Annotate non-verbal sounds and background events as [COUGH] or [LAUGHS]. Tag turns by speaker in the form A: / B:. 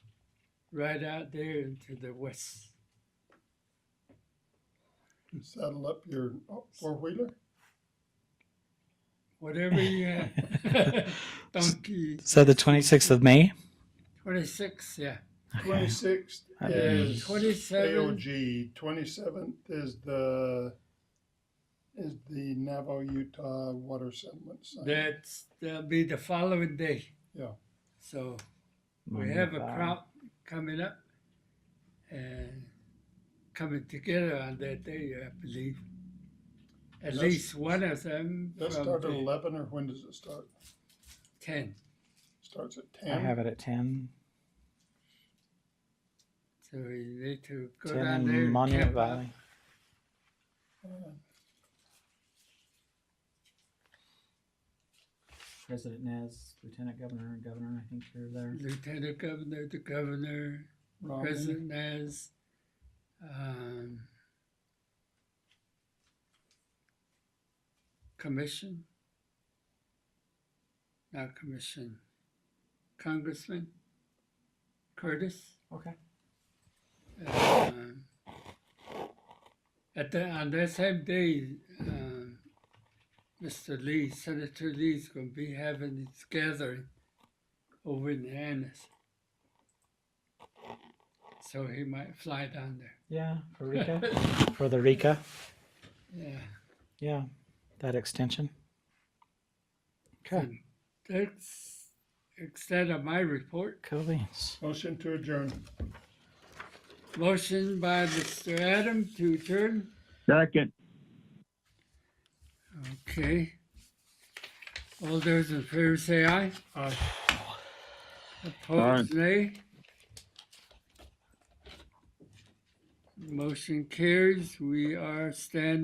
A: right out there and to the west.
B: You saddle up your four wheeler.
A: Whatever
C: [LAUGHS]
A: you have. [LAUGHS] Donkey
C: So the 26th of May.
A: 26, yeah.
B: Twenty sixth
C: That'd be-
B: is
A: 27.
B: AOG. Twenty seventh is the is the Navajo Utah Water Settlement. Sign.
A: That's, that'll be the following day.
B: Yeah.
A: So we have a crop coming up and coming together on that day, I believe. At
B: That's-
A: least one of them
B: Does that
A: from
B: start at
A: the
B: eleven or when does it start?
A: 10.
B: Starts at
C: I
B: ten.
C: have it at 10.
A: So we need to go
C: 10
A: down there.
C: in
A: and
C: Monument
A: camp out.
C: Valley.
B: Uh,
D: President Nez, Lieutenant Governor, and Governor, I think you're there.
A: Lieutenant Governor, the Governor,
B: Robin,
A: President Nez, um, Commission, not Commission, Congressman Curtis.
D: Okay.
A: um, At the, on that same day, um, Mr. Lee, Senator Lee's gonna be having his gathering over in Annis. So he might fly down there.
C: Yeah, for Rika. for the Rika.
A: Yeah.
C: Yeah,
A: [LAUGHS]
C: that extension. Okay,
A: And That's extent of my report.
C: cool beans.
B: Motion to adjourn.
A: Motion by Mr. Adam to adjourn.
E: Second.
A: Okay. All those in favor say aye.
B: Aye.
A: Opposed, nay. Motion carries. We are standing.